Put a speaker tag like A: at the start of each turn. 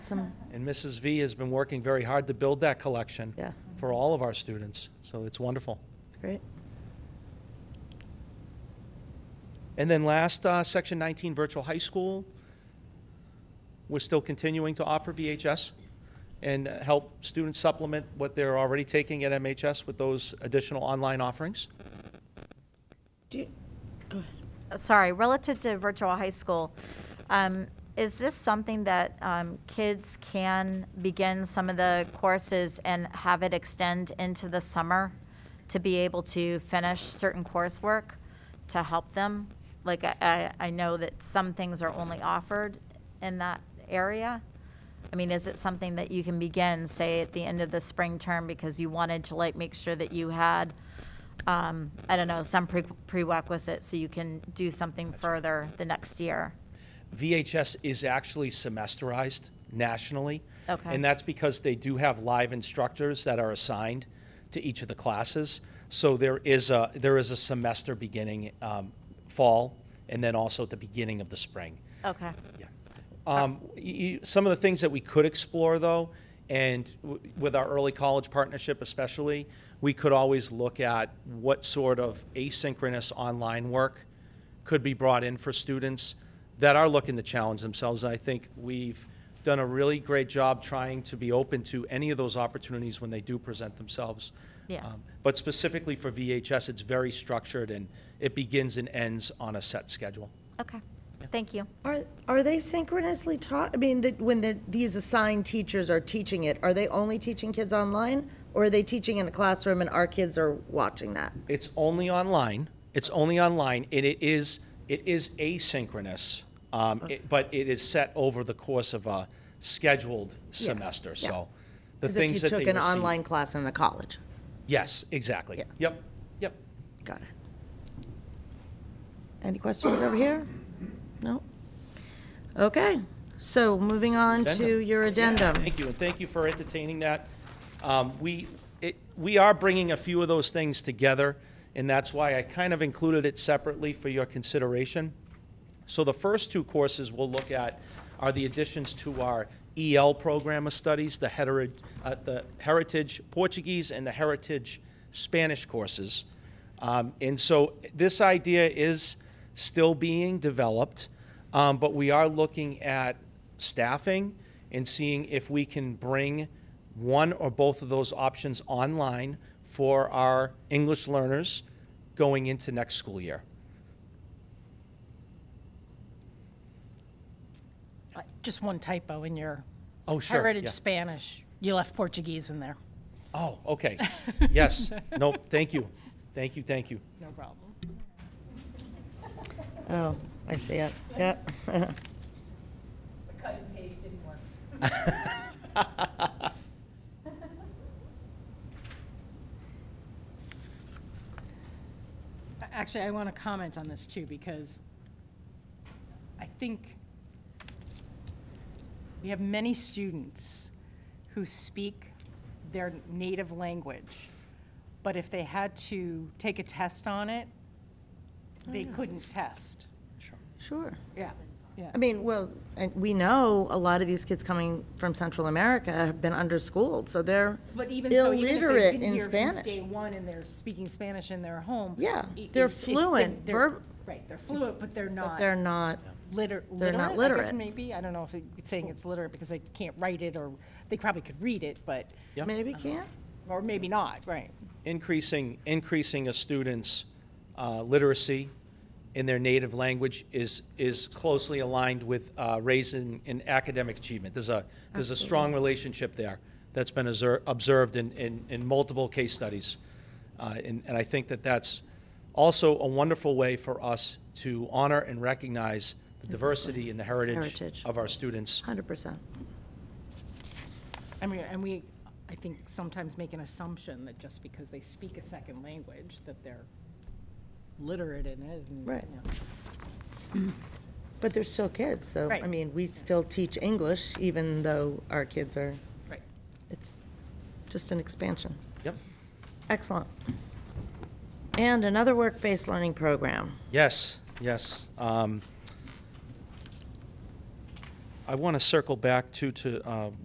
A: awesome.
B: And Mrs. V has been working very hard to build that collection
A: Yeah.
B: for all of our students, so it's wonderful.
A: It's great.
B: And then last, uh, Section 19 Virtual High School. We're still continuing to offer VHS and uh, help students supplement what they're already taking at MHS with those additional online offerings.
C: Uh, sorry, relative to virtual high school, um, is this something that um, kids can begin some of the courses and have it extend into the summer to be able to finish certain coursework to help them? Like, I, I- I know that some things are only offered in that area. I mean, is it something that you can begin, say, at the end of the spring term because you wanted to like make sure that you had, um, I don't know, some pre- prerequisite so you can do something further the next year?
B: VHS is actually semesterized nationally.
C: Okay.
B: And that's because they do have live instructors that are assigned to each of the classes. So there is a, there is a semester beginning um, fall and then also at the beginning of the spring.
C: Okay.
B: Yeah. Um, y- y- Some of the things that we could explore, though, and w- with our early college partnership especially, we could always look at what sort of asynchronous online work could be brought in for students that are looking to challenge themselves. And I think we've done a really great job trying to be open to any of those opportunities when they do present themselves.
C: Yeah.
B: Um, But specifically for VHS, it's very structured, and it begins and ends on a set schedule.
C: Okay. Thank you.
A: Are, are they synchronously taught? I mean, that when the, these assigned teachers are teaching it, are they only teaching kids online? Or are they teaching in a classroom and our kids are watching that?
B: It's only online. It's only online, and it is it is asynchronous, um, it, but it is set over the course of a scheduled semester. So, the
A: As if
B: things
A: you
B: that
A: took
B: they
A: an
B: receive-
A: online class in a college.
B: Yes, exactly.
A: Yeah.
B: Yep. Yep.
A: Got it. Any questions over here? No? Okay, so moving on to
B: Addendum.
A: your addendum.
B: Thank you, and thank you for entertaining that. Um, We, it- we are bringing a few of those things together, and that's why I kind of included it separately for your consideration. So the first two courses we'll look at are the additions to our EL program of studies, the hetero- uh, the Heritage Portuguese and the Heritage Spanish courses. Um, and so this idea is still being developed, um, but we are looking at staffing and seeing if we can bring one or both of those options online for our English learners going into next school year.
D: Uh, Just one typo in your
B: Oh, sure.
D: heritage
B: yeah.
D: Spanish. You left Portuguese in there.
B: Oh, okay. Yes. No, thank you. Thank you, thank you.
D: No problem.
A: Oh, I see it, yep.
D: Cut and paste didn't work. Actually, I want to comment on this too, because I think we have many students who speak their native language, but if they had to take a test on it, they couldn't test.
A: Sure.
D: Yeah, yeah.
A: I mean, well, and we know a lot of these kids coming from Central America have been underschooled, so they're
D: But even so, even if they've
A: illiterate
D: been
A: in
D: here since day
A: Spanish.
D: one and they're speaking Spanish in their home.
A: Yeah,
D: i-
A: they're
D: it's- it's the-
A: fluent,
D: they're-
A: verb-
D: Right, they're fluent, but they're
A: But
D: not
A: they're not,
D: liter- literate.
A: they're not
D: I guess
A: literate.
D: maybe, I don't know if it- it's saying it's literate because they can't write it or they probably could read it, but,
B: Yep.
A: maybe can't?
D: or maybe not, right?
B: Increasing, increasing a student's uh, literacy in their native language is, is closely aligned with uh, raising in academic achievement. There's a, there's a strong relationship there that's been obser- observed in, in, in multiple case studies. Uh, And, and I think that that's also a wonderful way for us to honor and recognize the diversity and the heritage
A: Heritage.
B: of our students.
A: Hundred percent.
D: I mean, and we, I think sometimes make an assumption that just because they speak a second language, that they're literate in it. and,
A: Right.
D: you know.
A: But they're still kids, so, I
D: Right.
A: mean, we still teach English even though our kids are,
D: Right.
A: it's just an expansion.
B: Yep.
A: Excellent. And another work-based learning program.
B: Yes, yes. Um, I want to circle back to, to uh,